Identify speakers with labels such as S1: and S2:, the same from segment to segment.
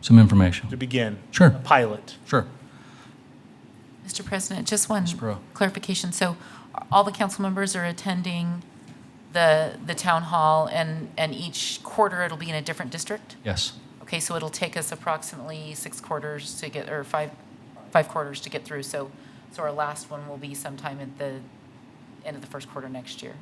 S1: some information.
S2: to begin?
S1: Sure.
S2: A pilot?
S1: Sure.
S3: Mr. President, just one
S1: Spro.
S3: clarification. So are all the council members are attending the, the town hall and, and each quarter it'll be in a different district?
S1: Yes.
S3: Okay, so it'll take us approximately six quarters to get, or five, five quarters to get through. So, so our last one will be sometime at the end of the first quarter next year,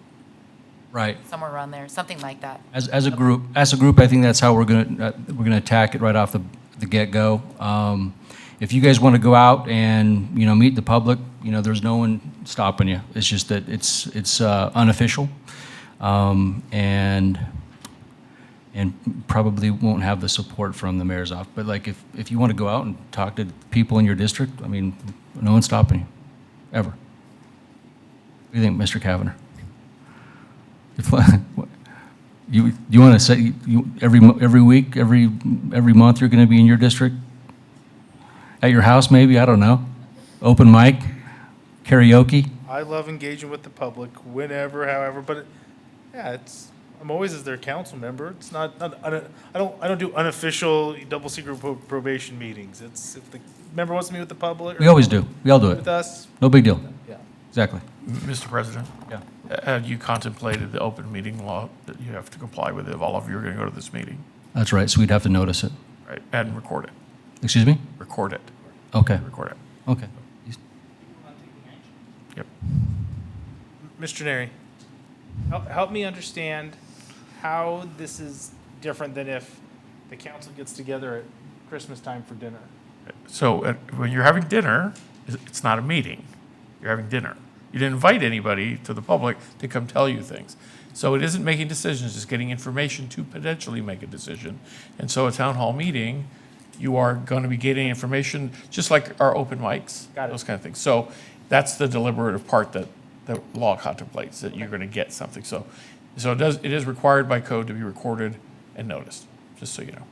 S1: Right.
S3: somewhere around there, something like that.
S1: As, as a group, as a group, I think that's how we're gonna, uh, we're gonna attack it right off the, the get-go. Um, if you guys want to go out and, you know, meet the public, you know, there's no one stopping you. It's just that it's, it's, uh, unofficial. Um, and, and probably won't have the support from the mayor's office. But like, if, if you want to go out and talk to people in your district, I mean, no one's stopping you, ever. What do you think, Mr. Kavanagh? If- you, you want to say, you, every, mo- every week, every, every month, you're going to be in your district? At your house, maybe, I don't know. Open mic, karaoke?
S2: I love engaging with the public whenever, however, but yeah, it's, I'm always as their council member. It's not, not, I don't, I don't, I don't do unofficial double secret pro- probation meetings. It's if the member wants to meet with the public. or
S1: We always do, we all do
S2: With
S1: it.
S2: us,
S1: No big deal,
S2: yeah.
S1: exactly.
S4: Mr. President,
S1: Yeah.
S4: have you contemplated the open meeting law that you have to comply with if all of you are going to go to this meeting?
S1: That's right, so we'd have to notice it.
S4: Right, and record it,
S1: Excuse me?
S4: record it,
S1: Okay,
S4: record it.
S1: okay.
S4: Yep.
S2: Mr. Neri,
S5: Help, help me understand how this is different than if the council gets together at Christmas time for dinner.
S4: So uh, when you're having dinner, it's- it's not a meeting. You're having dinner. You didn't invite anybody to the public to come tell you things. So it isn't making decisions, it's getting information to potentially make a decision. And so a town hall meeting, you are going to be getting information, just like our open mics,
S5: Got it.
S4: those kind of things. So that's the deliberative part that the law contemplates, that you're going to get something. So, so it does, it is required by code to be recorded and noticed, just so you know.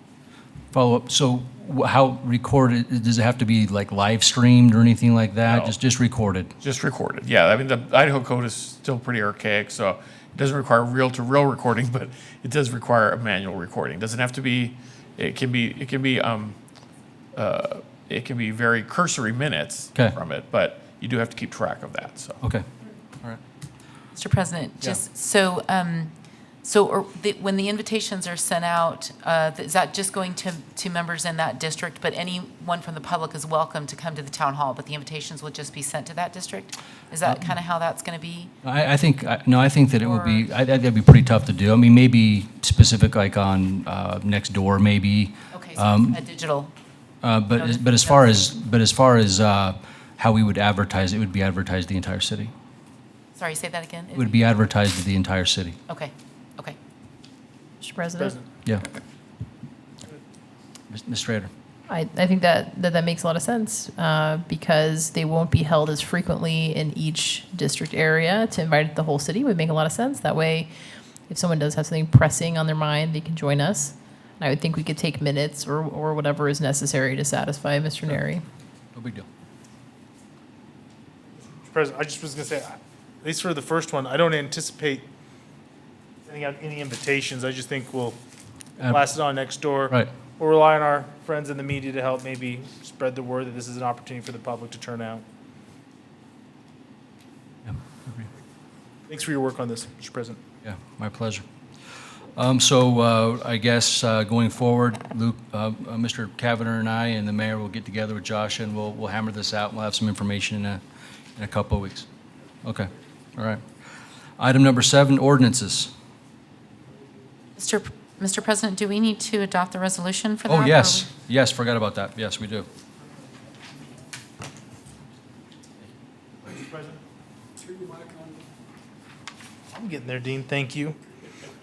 S1: Follow-up, so wh- how recorded, does it have to be like live streamed or anything like that?
S4: No.
S1: Just, just recorded?
S4: Just recorded, yeah. I mean, the Idaho code is still pretty archaic, so it doesn't require reel-to-reel recording, but it does require a manual recording. Doesn't have to be, it can be, it can be, um, uh, it can be very cursory minutes
S1: 'Kay.
S4: from it, but you do have to keep track of that, so.
S1: Okay,
S3: Mr. President, just, so, um, so are the- when the invitations are sent out, uh, is that just going to, to members in that district? But anyone from the public is welcome to come to the town hall, but the invitations will just be sent to that district? Is
S1: Um,
S3: that kind of how that's going to be?
S1: I, I think, I- no, I think that it would be, I- I- that'd be pretty tough to do. I mean, maybe specific like on uh, next door, maybe.
S3: Okay, so
S1: um,
S3: it's a digital,
S1: Uh, But, as- but as far as, but as far as uh, how we would advertise, it would be advertised the entire city.
S3: sorry, say that again?
S1: It would be advertised to the entire city,
S3: Okay, okay.
S6: Mr. President,
S1: yeah. Ms. Ms. Strader?
S6: I, I think that, that that makes a lot of sense uh, because they won't be held as frequently in each district area. To invite the whole city would make a lot of sense. That way, if someone does have something pressing on their mind, they can join us. And I would think we could take minutes or, or whatever is necessary to satisfy Mr. Neri.
S1: No big deal.
S2: Mr. President, I just was gonna say, I- at least for the first one, I don't anticipate sending out any invitations. I just think we'll
S1: Uh,
S2: blast it on next door.
S1: Right,
S2: We'll rely on our friends in the media to help maybe spread the word that this is an opportunity for the public to turn out.
S1: Yeah,
S2: Thanks for your work on this, Mr. President.
S1: yeah, my pleasure. Um, So uh, I guess uh, going forward, Luke, uh, uh, Mr. Kavanaugh and I and the mayor will get together with Josh and we'll, we'll hammer this out. We'll have some information in a, in a couple of weeks. Okay, all right. Item number seven, ordinances.
S3: Mr. P- Mr. President, do we need to adopt the resolution for that?
S1: Oh,
S3: or are
S1: yes,
S3: we-
S1: yes, forgot about that. Yes, we do.
S2: I'm getting there, Dean. Thank you.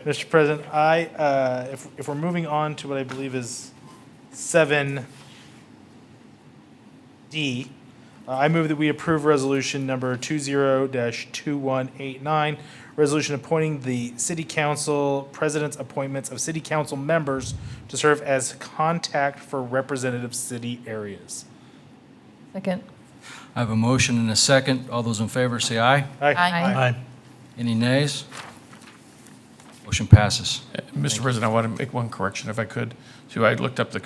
S2: Mr. President, I, uh, if, if we're moving on to what I believe is seven D, uh, I move that we approve resolution number two zero dash two one eight nine, resolution appointing the city council, president's appointments of city council members to serve as contact for representative city areas.
S6: Second.
S1: I have a motion and a second. All those in favor, say aye.
S3: Aye.
S1: Any nays? Motion passes.
S4: Uh, Mr. President, I want to make one correction if I could. So I looked up the